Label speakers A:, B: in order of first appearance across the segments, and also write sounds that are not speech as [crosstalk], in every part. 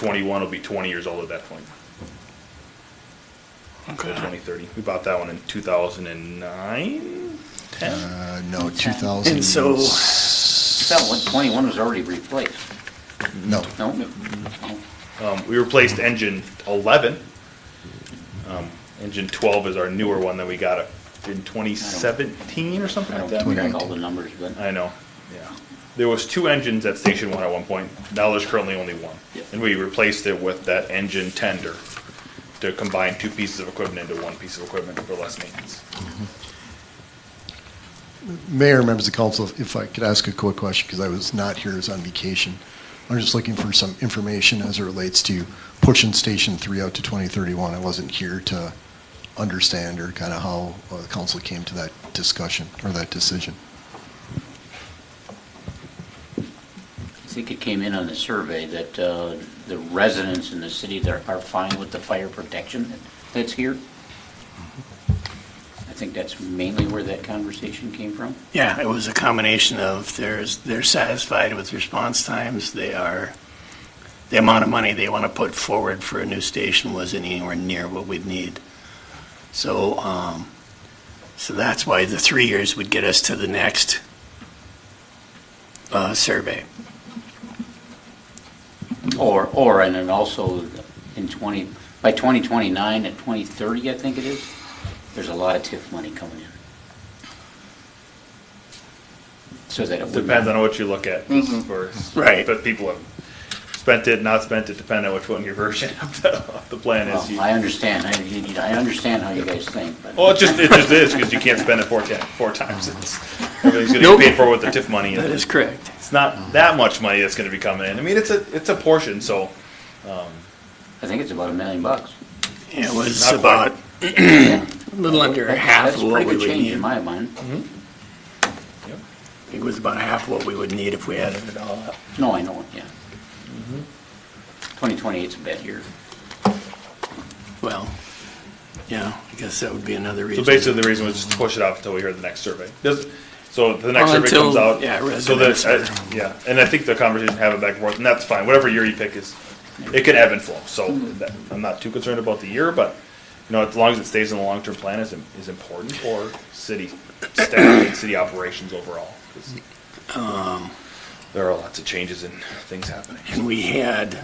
A: 21 will be 20 years old at that point. So 2030. We bought that one in 2009, 10.
B: Uh, no, 2000.
C: And so-
D: That one, twenty-one was already replaced,
B: No,
D: no? No.
A: Um, we replaced engine 11. Um, engine 12 is our newer one that we got uh, in 2017 or something
D: I
A: like that.
D: don't track all the numbers, but
A: I know, yeah. There was two engines at Station One at one point, now there's currently only one.
D: Yeah.
A: And we replaced it with that engine tender to combine two pieces of equipment into one piece of equipment for less maintenance.
B: Mayor, members of council, if I could ask a quick question, because I was not here, I was on vacation. I'm just looking for some information as it relates to pushing Station 3 out to 2031. I wasn't here to understand or kind of how uh, the council came to that discussion or that decision.
D: I think it came in on the survey that, uh, the residents in the city there are fine with the fire protection that's here. I think that's mainly where that conversation came from.
C: Yeah, it was a combination of there's, they're satisfied with response times, they are, the amount of money they want to put forward for a new station wasn't anywhere near what we'd need. So, um, so that's why the three years would get us to the next, uh, survey.
D: Or, or, and then also in 20, by 2029 and 2030, I think it is, there's a lot of TIF money coming in. So that it would.
A: Depends on what you look at. for-
C: Right.
A: But people have spent it, not spent it, depending on which one your version of the, of the plan is.
D: Well,
A: You-
D: I understand, I, you- you- I understand how you guys think, but.
A: Well, it just, it just is, because you can't spend it four, ti- four times. It's- Everything's gonna
C: Nope.
A: be paid for with the TIF money.
C: That is correct.
A: It's not that much money that's gonna be coming in. I mean, it's a, it's a portion, so.
D: I think it's about a million bucks.
C: It was
A: Not quite.
C: about a little under
D: That-
C: half of
D: That's
C: what we
D: pretty good
C: would
D: change in
C: need. Mm-hmm.
D: my mind.
A: Yep.
C: It was about half what we would need if we added it all up.
D: No, I know it, yeah.
C: Mm-hmm.
D: 2028's a bad year.
C: Well, yeah, I guess that would be another
A: So
C: reason.
A: basically, the reason was just to push it out until we hear the next survey. Does- So the next
C: Well,
A: survey
C: until-
A: comes out.
C: yeah,
A: So that,
C: residents
A: uh, yeah, and I think the conversation have it back and forth, and that's fine, whatever year you pick is, it can ebb and flow, so that- I'm not too concerned about the year, but, you know, as long as it stays in the long-term plan is, im- is important for city staff and city operations overall. 'cause
C: Um.
A: There are lots of changes and things happening.
C: And we had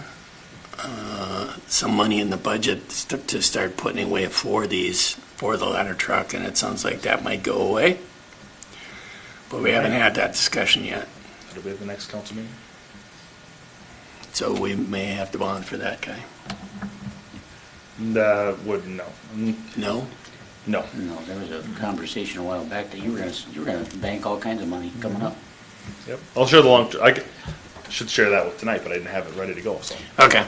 C: uh, some money in the budget st- to start putting away for these, for the ladder truck, and it sounds like that might go away. But we haven't had that discussion yet,
A: It'll be at the next council meeting.
C: so we may have to bond for that guy.
A: That would, no, Mm,
C: No?
A: no.
D: No, there was a conversation a while back that you were gonna, s- you were gonna bank all kinds of money coming up.
A: Yep. I'll share the long, I c- should share that with tonight, but I didn't have it ready to go, so.
C: Okay.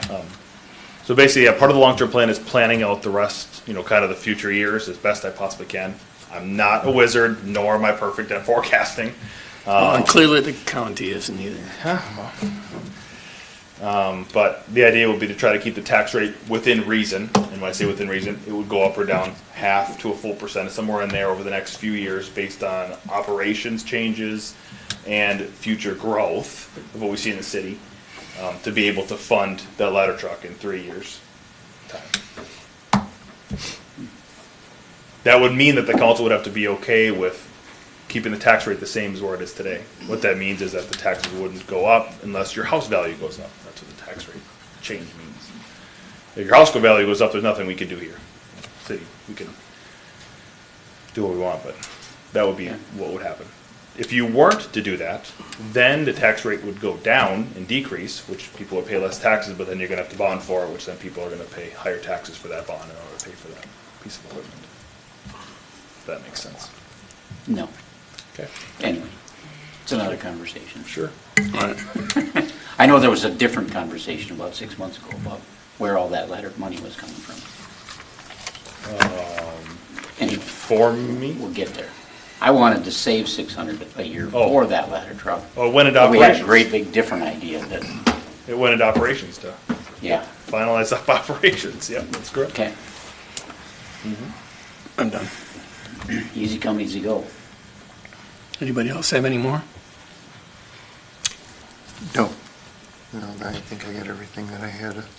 A: So basically, yeah, part of the long-term plan is planning out the rest, you know, kind of the future years as best I possibly can. I'm not a wizard, nor am I perfect at [laughs] forecasting.
C: Well, and clearly the county isn't either.
A: But the idea would be to try to keep the tax rate within reason. And when I say within reason, it would go up or down half to a full percent, somewhere in there over the next few years based on operations changes and future growth of what we see in the city, um, to be able to fund that ladder truck in three years' time. That would mean that the council would have to be okay with keeping the tax rate the same as where it is today. What that means is that the taxes wouldn't go up unless your house value goes up. That's what the tax rate change means. If your house value goes up, there's nothing we can do here. City, we can do what we want, but that would be what would happen. If you weren't to do that, then the tax rate would go down and decrease, which people would pay less taxes, but then you're gonna have to bond for it, which then people are gonna pay higher taxes for that bond in order to pay for that piece of equipment. If that makes sense.
C: Mm-hmm.
D: No,
A: Okay.
D: anyway, it's another conversation.
A: Sure.
D: I know there was a different conversation about six months ago about where all that letter money was coming from.
C: Um,
D: And
A: For me?
D: we'll get there. I wanted to save six hundred a year
A: Oh.
D: for that ladder truck.
A: Oh, it went into
D: But we had a
A: operations.
D: great big different idea that,
A: It went into operations to
D: yeah,
A: finalize [laughs] up operations. Yep, that's correct.
D: okay,
C: I'm done.
D: easy come, easy go.
C: Anybody else have any more?
E: No. No, I think I got everything that I had.